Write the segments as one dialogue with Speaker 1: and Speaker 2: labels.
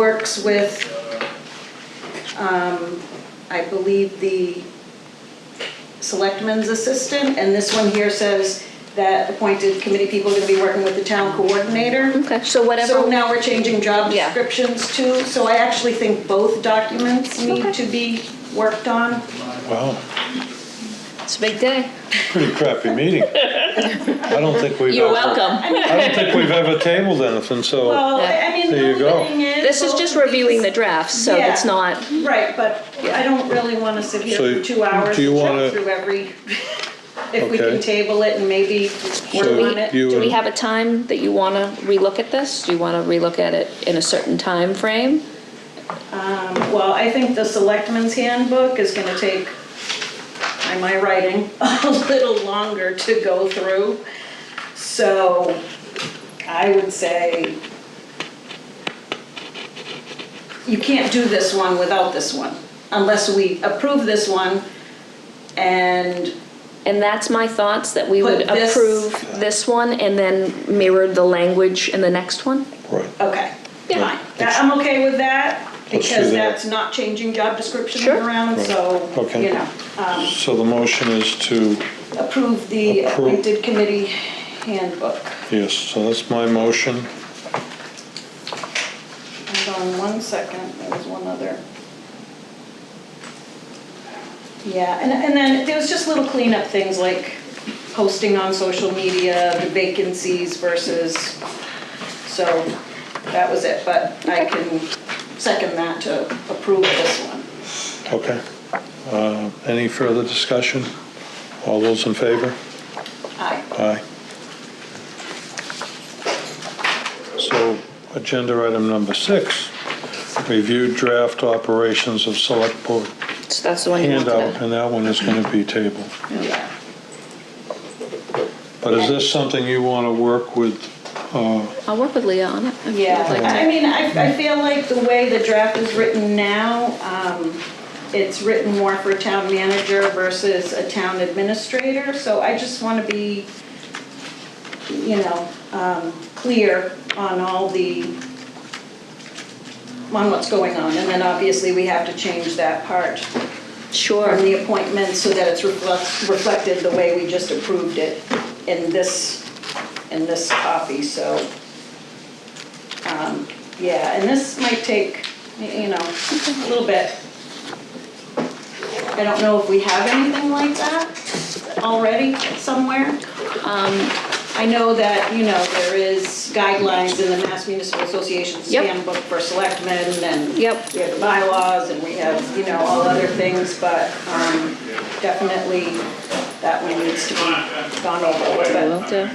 Speaker 1: works with, um, I believe, the selectman's assistant, and this one here says that appointed committee people are going to be working with the town coordinator.
Speaker 2: Okay, so
Speaker 1: So
Speaker 2: whatever,
Speaker 1: now we're changing job
Speaker 2: Yeah.
Speaker 1: descriptions too, so I actually think both documents need
Speaker 2: Okay.
Speaker 1: to be worked on.
Speaker 3: Wow,
Speaker 2: it's a big day.
Speaker 3: pretty crappy meeting. I don't think we've
Speaker 2: You're
Speaker 3: ever-
Speaker 2: welcome.
Speaker 3: I don't think we've ever tabled anything, so,
Speaker 1: Well, I mean,
Speaker 3: There you
Speaker 1: the
Speaker 3: go.
Speaker 1: only thing is.
Speaker 2: This is
Speaker 1: both
Speaker 2: just
Speaker 1: of
Speaker 2: reviewing the
Speaker 1: these-
Speaker 2: drafts, so
Speaker 1: Yeah.
Speaker 2: it's not,
Speaker 1: Right, but I don't really want to sit here
Speaker 3: So
Speaker 1: for two hours
Speaker 3: do you
Speaker 1: and
Speaker 3: wanna-
Speaker 1: jump through every, if we can
Speaker 3: Okay.
Speaker 1: table it and maybe
Speaker 3: So
Speaker 1: work on it.
Speaker 3: you-
Speaker 2: do we have a time that you want to relook at this? Do you want to relook at it in a certain time frame?
Speaker 1: Well, I think the selectmen's handbook is going to take, by my writing, a little longer to go through. So I would say you can't do this one without this one unless we approve this one and
Speaker 2: And that's my thoughts, that we would
Speaker 1: Put this-
Speaker 2: approve this one and then mirror the language in the next one?
Speaker 3: right.
Speaker 1: Okay,
Speaker 2: Yeah.
Speaker 1: fine. That- I'm okay with that,
Speaker 3: Let's do
Speaker 1: because
Speaker 3: that.
Speaker 1: that's not changing job descriptions
Speaker 2: Sure.
Speaker 1: around, so,
Speaker 3: Okay.
Speaker 1: you know. um,
Speaker 3: So the motion is to,
Speaker 1: Approve the
Speaker 3: Approve.
Speaker 1: appointed committee handbook.
Speaker 3: yes, so that's my motion.
Speaker 1: Hold on one second, there was one other. Yeah, and, and then there was just little cleanup things like posting on social media, the vacancies versus, so that was it, but I can second that to approve this one.
Speaker 3: Okay. Uh, Any further discussion? All those in favor?
Speaker 1: Aye.
Speaker 3: Aye. So, agenda item number six, review draft operations of select board
Speaker 2: So that's the one you want
Speaker 3: handout,
Speaker 2: to...
Speaker 3: and uh, that one is gonna be tabled.
Speaker 1: Yeah.
Speaker 3: But is this something you wanna work with, uh,
Speaker 2: I'll work with Leah on it. if you'd
Speaker 1: Yeah,
Speaker 2: like to.
Speaker 1: I I mean, I, I feel like the way the draft is written now, um, it's written more for town manager versus a town administrator, so I just want to be, you know, um, clear on all the, on what's going on, and then obviously we have to change that part from
Speaker 2: Sure,
Speaker 1: the appointment so that it's reflect- reflected the way we just approved it in this, in this copy, so. um, Yeah, and this might take, y- you know, a little bit. I don't know if we have anything like that already somewhere. Um, I know that, you know, there is guidelines in the Mass Municipal Association's
Speaker 2: Yep.
Speaker 1: handbook for selectmen and
Speaker 2: Yep.
Speaker 1: we have the bylaws and we have, you know, all other things, but um, definitely that one needs to be gone
Speaker 2: I
Speaker 1: over.
Speaker 2: will do.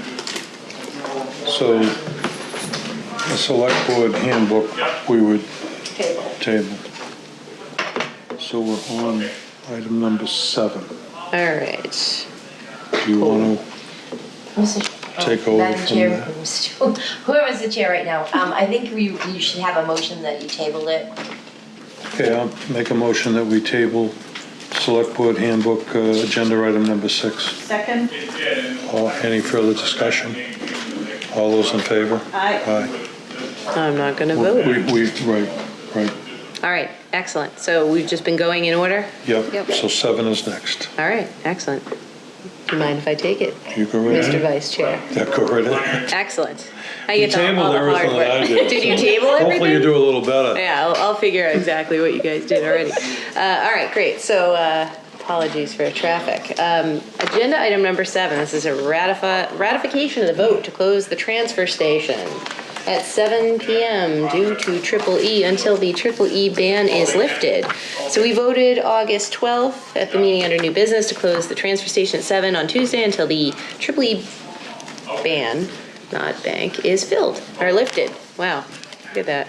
Speaker 3: so, the select board handbook, we would
Speaker 1: But table.
Speaker 3: table. So we're on item number seven.
Speaker 4: All right.
Speaker 3: Do you wanna, Take over
Speaker 4: Oh, Madam
Speaker 3: from
Speaker 4: Chair,
Speaker 3: there.
Speaker 4: Mr. Whoever's the chair right now, um, I think we, you should have a motion that you table it.
Speaker 3: okay, I'll make a motion that we table select board handbook, uh, agenda item number six.
Speaker 1: Second,
Speaker 3: All- Any further discussion? All those in favor?
Speaker 1: I,
Speaker 3: Aye.
Speaker 4: I'm not gonna
Speaker 3: We, we, right, right,
Speaker 4: All right, excellent. So we've just been going in order?
Speaker 3: yep,
Speaker 2: Yep.
Speaker 3: so seven is next.
Speaker 4: All right, excellent. Do you mind if I take it,
Speaker 3: You go right
Speaker 4: Mr.
Speaker 3: ahead.
Speaker 4: Vice Chair?
Speaker 3: Yeah, go right ahead.
Speaker 4: Excellent. I
Speaker 3: You
Speaker 4: get to all
Speaker 3: tabled
Speaker 4: the hard
Speaker 3: everything that I
Speaker 4: work.
Speaker 3: did.
Speaker 4: Did
Speaker 3: so
Speaker 4: you table
Speaker 3: Hopefully you
Speaker 4: everything?
Speaker 3: do a little better.
Speaker 4: Yeah, I'll, I'll figure out exactly what you guys did already. Uh, all right, great. So uh, apologies for traffic. Um, agenda item number seven. This is a ratifi- ratification of the vote to close the transfer station at 7 p.m. due to Triple E until the Triple E ban is lifted. So we voted August 12th at the meeting under new business to close the transfer station at 7 on Tuesday until the Triple E ban, not bank, is filled or lifted. Wow, look at that.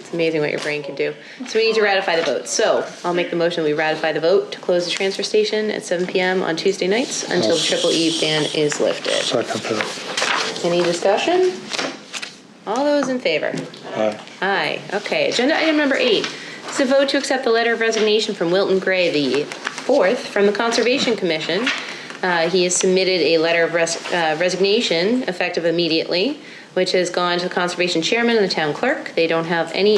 Speaker 4: It's amazing what your brain can do. So we need to ratify the vote. So I'll make the motion, we ratify the vote to close the transfer station at 7 PM on Tuesday nights until the triple E ban is lifted.
Speaker 3: Second that,
Speaker 4: Any discussion? All those in favor?
Speaker 3: aye.
Speaker 4: Aye. Okay, agenda item number eight. It's a vote to accept the letter of resignation from Wilton Gray, the fourth, from the Conservation Commission. Uh, He has submitted a letter of res- uh, resignation effective immediately, which has gone to the Conservation Chairman and the Town Clerk. They don't have any